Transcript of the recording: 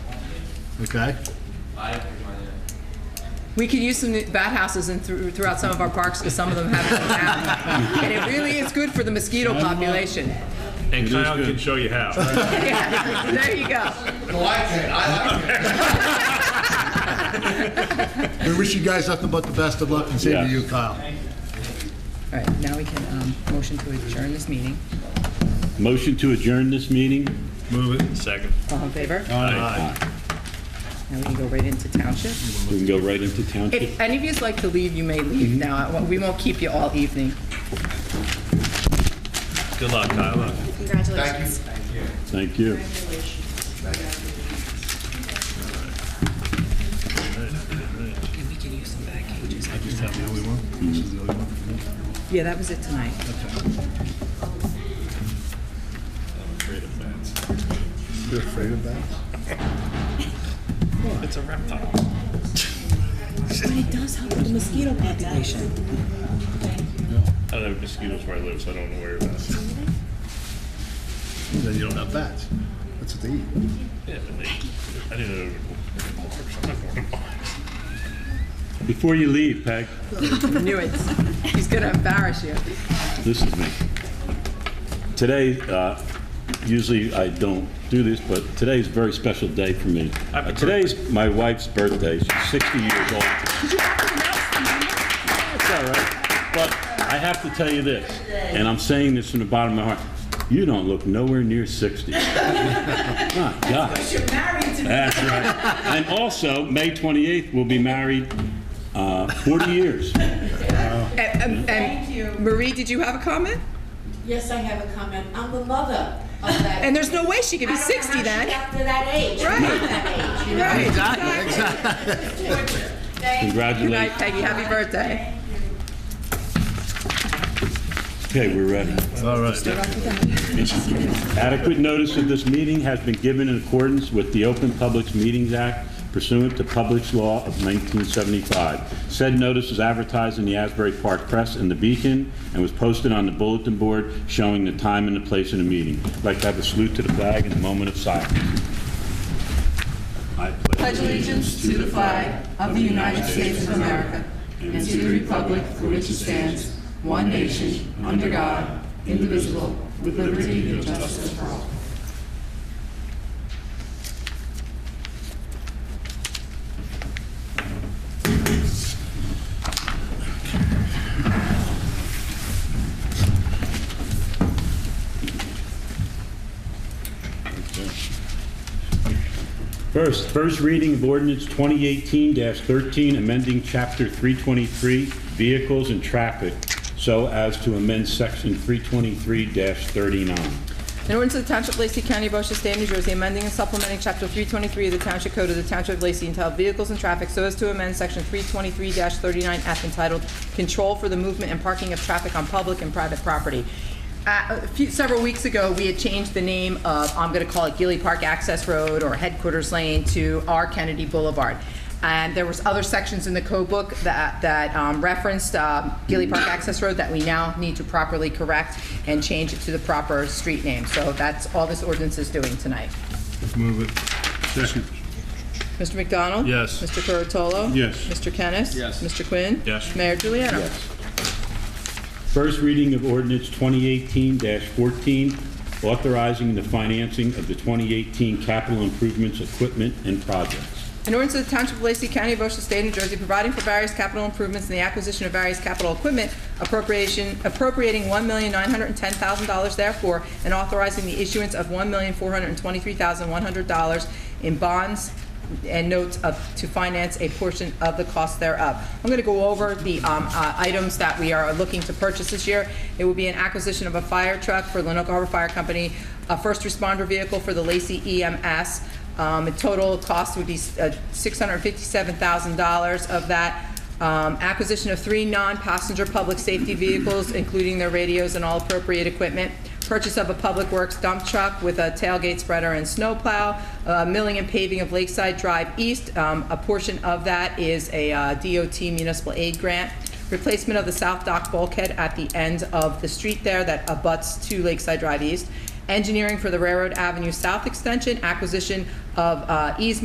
Okay? I didn't pick mine yet. We could use some bat houses in through throughout some of our parks because some of them have them now. And it really is good for the mosquito population. And is Kyle good. can show you how. Yeah, There you go. No, I can't, I like it. We wish you guys nothing but the best of luck and same to you, Kyle. All right, now we can um, motion to adjourn this meeting. Motion to adjourn this meeting? Move it. Second. All in favor? All right. Now we can go right into township. We can go right into township. If any of you's like to leave, you may Mm-hmm. leave now. I- We won't keep you all evening. Good luck, Kyle. Thank Congratulations. you. Thank you. Okay, we can use some back pages. I just have the only one? Yeah, that was it tonight. You're afraid of bats? It's a reptile. But it does help with the mosquito population. I don't have mosquitoes where I live, so I don't know where that's. Then you don't have bats. That's what they eat. Yeah, but they, I didn't know. I'm not going to bars. Before you leave, Peg, Knew it. He's gonna embarrass you. this is me. Today, uh, usually I don't do this, but today is a very special day for me. Happy Today's my wife's birthday. She's 60 years old. It's all right. But I have to tell you this, and I'm saying this from the bottom of my heart. You don't look nowhere near 60. My God. That's right. And also, May 28th, we'll be married uh, 40 years. And- And Thank you. and Marie, did you have a comment? Yes, I have a comment. I'm the mother of that. And there's no way she could be I don't know 60 how she then. got to that age. Right. Not that age, you know? Right. It's torture. Thank you. Good night, Congratulations. Peggy. Happy birthday. Okay, we're ready. All right. Adequate notice of this meeting has been given in accordance with the Open Public Meetings Act pursuant to Public Law of 1975. Said notice was advertised in the Asbury Park Press and the Beacon and was posted on the bulletin board showing the time and the place of the meeting. I'd like to have a salute to the flag and a moment of silence. I pledge allegiance to the flag of the United States of America and to the republic for which it stands, one nation, under God, indivisible, with liberty and justice for all. First, first reading of ordinance 2018-13, amending Chapter 323, Vehicles and Traffic, so as to amend Section 323-39. In order to the Township of Lacey County, Ocean State, New Jersey, amending and supplementing Chapter 323 of the Township Code of the Township of Lacey entitled Vehicles and Traffic so as to amend Section 323-39F entitled Control for the Movement and Parking of Traffic on Public and Private Property. Uh, a few- Several weeks ago, we had changed the name of, I'm going to call it Gilly Park Access Road or Headquarters Lane to R. Kennedy Boulevard. And there was other sections in the code book that, that um, referenced um, Gilly Park Access Road that we now need to properly correct and change it to the proper street name. So that's all this ordinance is doing tonight. Move it. Second. Mr. McDonald? Yes. Mr. Curatolo? Yes. Mr. Kennis? Yes. Mr. Quinn? Yes. Mayor Juliana? Yes. First reading of ordinance 2018-14, authorizing the financing of the 2018 capital improvements, equipment, and projects. An ordinance of the Township of Lacey County, Ocean State, New Jersey, providing for various capital improvements and the acquisition of various capital equipment appropriation, appropriating one million nine hundred and ten thousand dollars therefore, and authorizing the issuance of one million four hundred and twenty-three thousand one hundred dollars in bonds and notes of, to finance a portion of the cost thereof. I'm going to go over the um, uh, items that we are looking to purchase this year. It will be an acquisition of a fire truck for Lenoka Harbor Fire Company, a first responder vehicle for the Lacey E EMS, um, The total cost would be uh, $657,000 of that. Um, Acquisition of three non-passenger public safety vehicles, including their radios and all appropriate equipment. Purchase of a Public Works dump truck with a tailgate spreader and snowplow. Uh, Milling and paving of Lakeside Drive East. Um, A portion of that is a uh, DOT municipal aid grant. Replacement of the South Dock bulkhead at the end of the street there that abuts to Lakeside Drive East engineering for the Railroad Avenue South Extension, acquisition of uh, easement